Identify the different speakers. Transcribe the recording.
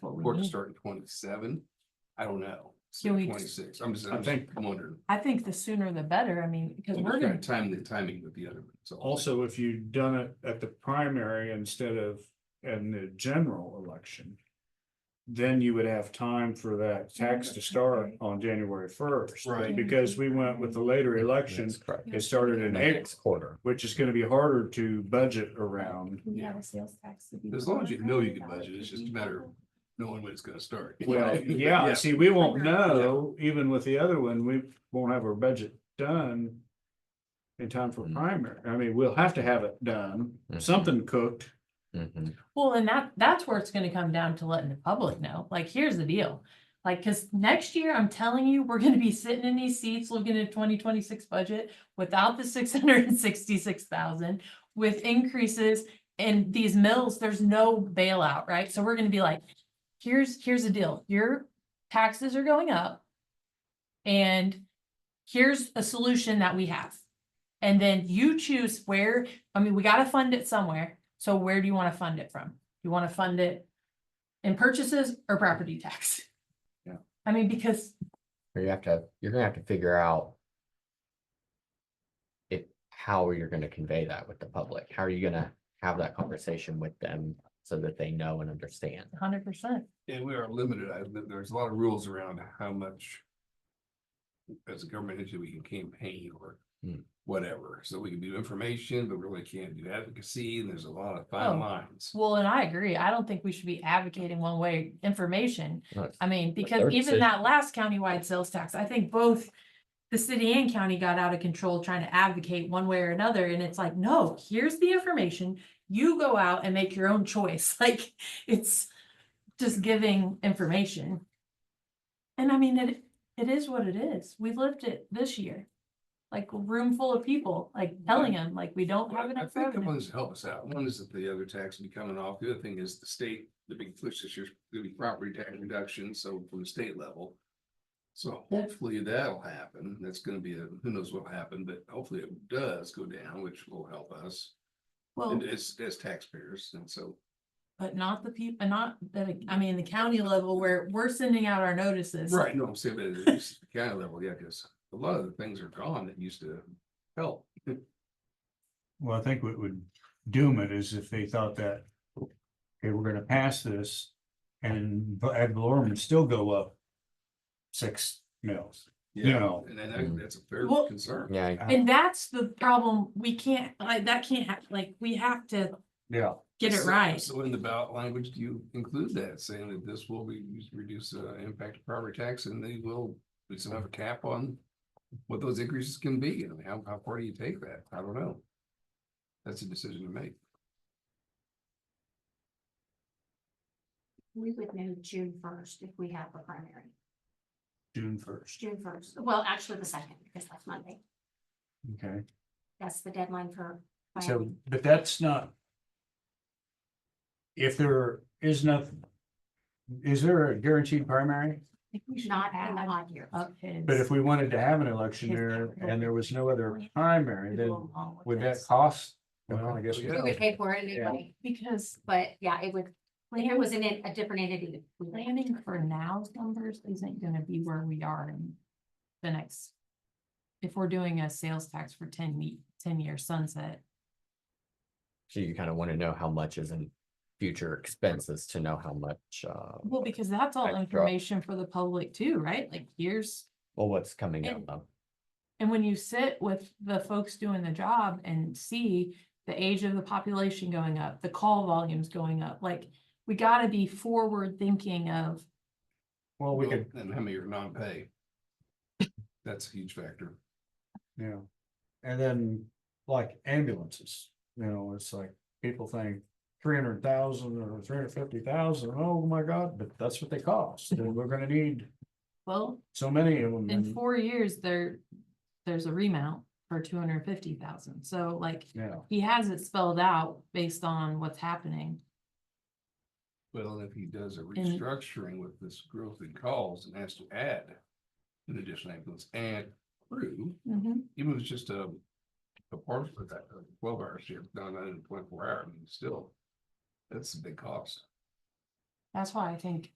Speaker 1: Court to start in twenty-seven, I don't know.
Speaker 2: Can we-
Speaker 1: Twenty-six, I'm just,
Speaker 3: I
Speaker 1: I'm just
Speaker 3: think-
Speaker 1: wondering.
Speaker 2: I think the sooner the better, I mean, because
Speaker 1: I'm
Speaker 2: we're
Speaker 1: just
Speaker 2: gonna,
Speaker 1: trying to time the timing with the other. one, so.
Speaker 3: Also, if you'd done it at the primary instead of in the general election. Then you would have time for that tax to start on January first.
Speaker 1: Right.
Speaker 3: Because we went with the later election,
Speaker 4: That's correct.
Speaker 3: it started in April,
Speaker 4: Next quarter.
Speaker 3: which is gonna be harder to budget around.
Speaker 5: We have
Speaker 1: Yeah.
Speaker 5: a sales tax.
Speaker 1: As long as you know you can budget, it's just a matter of knowing when it's gonna start.
Speaker 3: Well, yeah, see, we won't know, even with the other one, we won't have our budget done. In time for
Speaker 4: Mm.
Speaker 3: primary, I mean, we'll have to have it done,
Speaker 4: Mhm.
Speaker 3: something cooked.
Speaker 4: Mhm.
Speaker 2: well, and that, that's where it's gonna come down to letting the public know, like, here's the deal. Like, cause next year, I'm telling you, we're gonna be sitting in these seats looking at twenty twenty-six budget without the six hundred and sixty-six thousand. With increases in these mills, there's no bailout, right? So we're gonna be like, here's, here's the deal, your taxes are going up. And here's a solution that we have. And then you choose where, I mean, we gotta fund it somewhere, so where do you wanna fund it from? You wanna fund it in purchases or property tax?
Speaker 3: Yeah.
Speaker 2: I mean, because,
Speaker 4: You have to, you're gonna have to figure out. If, how you're gonna convey that with the public, how are you gonna have that conversation with them so that they know and understand?
Speaker 2: hundred percent,
Speaker 1: And we are limited, I, there's a lot of rules around how much. As a government entity, we can campaign or
Speaker 4: Hmm.
Speaker 1: whatever, so we can do information, but really can't do advocacy, and there's a lot of fine
Speaker 2: Oh.
Speaker 1: lines.
Speaker 2: well, and I agree, I don't think we should be advocating one way information.
Speaker 4: No, it's-
Speaker 2: I mean, because
Speaker 4: their
Speaker 2: even that last countywide sales tax, I think both the city and county got out of control trying to advocate one way or another, and it's like, no, here's the information. You go out and make your own choice, like, it's just giving information. And I mean, it, it is what it is, we lived it this year. Like, a room full of people, like, telling them, like, we don't have
Speaker 1: Well, I
Speaker 2: enough
Speaker 1: think the
Speaker 2: revenue.
Speaker 1: ones that help us out, one is that the other tax will be coming off, the other thing is the state, the big push this year's gonna be property tax reduction, so from the state level. So hopefully that'll happen, that's gonna be, a who knows what'll happen, but hopefully it does go down, which will help us.
Speaker 2: Well,
Speaker 1: And as, as taxpayers, and so,
Speaker 2: but not the people, not, that I mean, the county level where we're sending out our notices.
Speaker 1: right, no, I'm saying, but at least the county level, yeah, because a lot of the things are gone that used to help.
Speaker 3: Well, I think what would doom it is if they thought that, okay, we're gonna pass this and v- ad valorem would still go up six mils. No.
Speaker 1: And then that- that's a fair
Speaker 2: Well-
Speaker 1: concern.
Speaker 4: Yeah,
Speaker 2: And that's the problem, we can't, like, that can't happen, like, we have to
Speaker 3: Yeah.
Speaker 2: get it
Speaker 1: So-
Speaker 2: right.
Speaker 1: So in the ballot language, do you include that, saying that this will be used to reduce uh impact of property tax and they will, we still have a cap on. What those increases can be, and how how far do you take that? I don't know. That's a decision to make.
Speaker 5: We would know June first if we have a primary,
Speaker 3: June first,
Speaker 5: June first, well, actually the second, because that's Monday,
Speaker 3: okay,
Speaker 5: that's the deadline for.
Speaker 3: so,
Speaker 5: filing.
Speaker 3: but that's not. If there is nothing, is there a guaranteed primary?
Speaker 5: Not in the odd year.
Speaker 3: But if we wanted to have an election there and there was no other primary, then would that cost? Well, I guess. we-
Speaker 5: We would pay for it anyway,
Speaker 2: Because
Speaker 5: but yeah, it would, when it was in a a different entity. we would-
Speaker 2: planning for now's numbers isn't gonna be where we are in the next. If we're doing a sales tax for ten ye- ten year sunset,
Speaker 4: so you kind of want to know how much is in future expenses to know how much, uh,
Speaker 3: Oh,
Speaker 2: well, because that's all
Speaker 4: Extra.
Speaker 2: information for the public too, right? Like, here's
Speaker 4: well, what's coming
Speaker 2: And-
Speaker 4: up. though.
Speaker 2: And when you sit with the folks doing the job and see the age of the population going up, the call volumes going up, like, we gotta be forward thinking of,
Speaker 3: Well, we could,
Speaker 1: And how many are non-pay? That's a huge factor.
Speaker 3: Yeah. And then like ambulances, you know, it's like people think three hundred thousand or three hundred fifty thousand. Oh my God, but that's what they cost. And we're gonna need
Speaker 2: well,
Speaker 3: so many of them.
Speaker 2: in
Speaker 3: and-
Speaker 2: four years, there, there's a remount for two hundred and fifty thousand, so like,
Speaker 3: Yeah,
Speaker 2: he has it spelled out based on what's happening.
Speaker 1: Well, and if he does a restructuring with this growth in calls and has to add. An additional ambulance and crew. even if it's just a. A part of that, a twelve hour shift, done in twenty four hours, I mean, still. That's a big cost.
Speaker 2: That's why I think